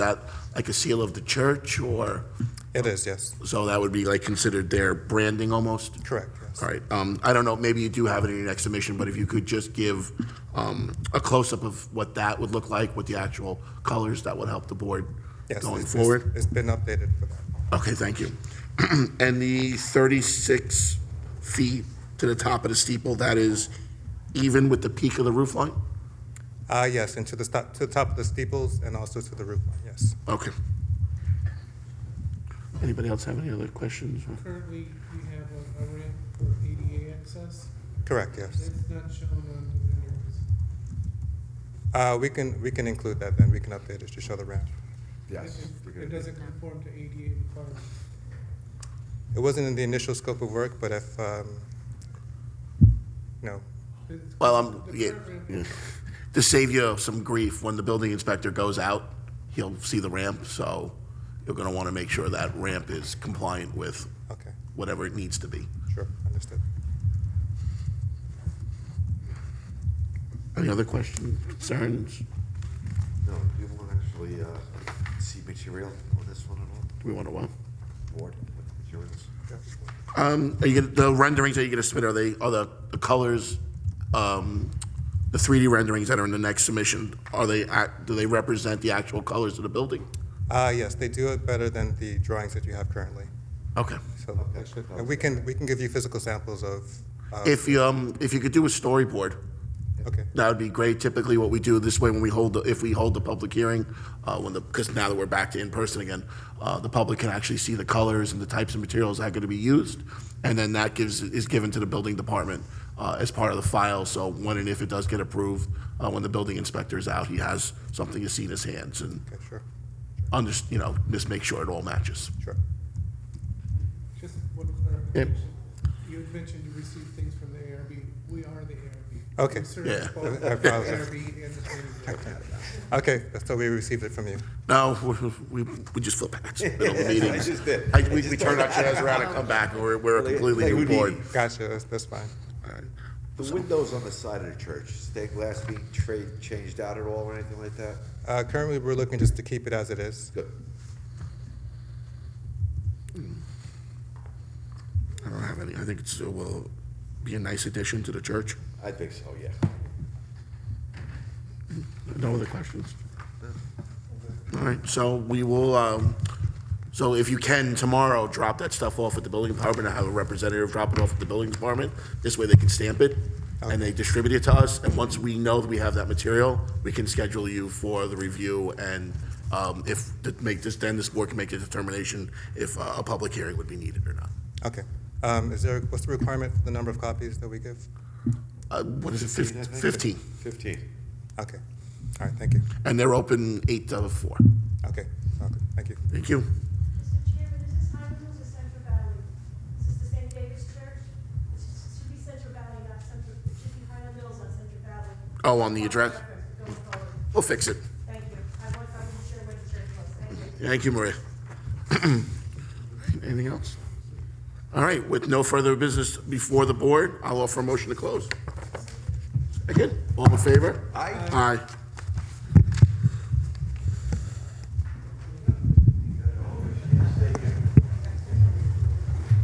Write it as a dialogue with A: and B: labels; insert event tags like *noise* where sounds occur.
A: that like a seal of the church or,
B: It is, yes.
A: so that would be like considered their branding almost?
B: Correct, yes.
A: All right, um, I don't know, maybe you do have it in your next submission, but if you could just give, um, a close-up of what that would look like with the actual colors, that would help the board
B: Yes,
A: going
B: it's- it's-
A: forward?
B: It's been updated for that.
A: Okay, thank you. *clears throat* And the 36 feet to the top of the steeple, that is even with the peak of the roof line?
B: Uh, yes, and to the top, to the top of the steeples and also to the roof line, yes.
A: Okay. Anybody else have any other questions?
C: Currently, we have a a ramp for ADA access.
B: Correct, yes.
C: That's not shown on the renderings.
B: Uh, we can, we can include that then, we can update it to show the ramp.
D: Yes.
C: It- It doesn't conform to ADA requirements.
B: It wasn't in the initial scope of work, but if, um, no,
C: It's-
A: Well, I'm,
C: the
A: yeah,
C: current ramp-
A: yeah. to save you some grief, when the building inspector goes out, he'll see the ramp, so you're going to want to make sure that ramp is compliant with
B: okay,
A: whatever it needs to be.
B: sure, understood.
A: Any other questions, concerns?
D: No, we won't actually uh, see material on this one at
A: Do we want to, what?
D: all, board with materials.
A: Um, are you gonna, the renderings that you're gonna submit, are they, are the, the colors, um, the 3D renderings that are in the next submission, are they, act- do they represent the actual colors of the building?
B: Uh, yes, they do it better than the drawings that you have currently,
A: Okay.
B: so they should, and we can, we can give you physical samples of, uh,
A: If you, um, if you could do a storyboard,
B: okay,
A: that would be great. Typically, what we do this way, when we hold, the if we hold the public hearing, uh, when the, because now that we're back to in-person again, uh, the public can actually see the colors and the types of materials that are gonna be used, and then that gives, is given to the building department, uh, as part of the file, so when and if it does get approved, uh, when the building inspector is out, he has something to see in his hands and,
B: okay, sure,
A: under, you know, just make sure it all matches.
B: sure.
C: Just one clarification. You had mentioned you received things from the ARB. We are the ARB.
B: Okay.
C: We service
A: Yeah.
C: both
B: I
C: the
B: apologize.
C: ARB and the planning board.
B: Okay, so we received it from you.
A: No, *laughs* we, we- we just flip back, it's the middle of the meeting.
D: *laughs* I just did.
A: I- We we turn our chairs around and come back, and we're, we're a completely new board.
B: Gotcha, that's, that's fine.
D: The windows on the side of the church, stained glass being trade, changed out at all or anything like that?
B: Uh, currently, we're looking just to keep it as it is.
D: Good.
A: I don't have any. I think it's, it will be a nice addition to the church.
D: I think so, yeah.
A: No other questions? All right, so we will, um, so if you can, tomorrow, drop that stuff off at the building department. I have a representative drop it off at the building department. This way they can stamp it and they distribute it to us. And once we know that we have that material, we can schedule you for the review and, um, if, to make this, then this board can make a determination if uh, a public hearing would be needed or not.
B: Okay. Um, is there, what's the requirement for the number of copies that we give?
A: Uh, what is it,
D: I
A: fif-
D: think.
A: fifteen?
D: Fifteen.
B: Okay. All right, thank you.
A: And they're open eight to four.
B: Okay, okay, thank you.
A: Thank you.
E: Mr. Chairman, is this High Hills or Central Valley? Is this the St. David's Church? This is- should be Central Valley, not Central, it should be Highland Mills, not Central Valley.
A: Oh, on the address?
E: Going forward.
A: We'll fix it.
E: Thank you. I want, I'm sure what the church was, thank you.
A: Thank you, Maria. *clears throat* Anything else? All right, with no further business before the board, I'll offer a motion to close. Again, all in favor? Aye. Aye.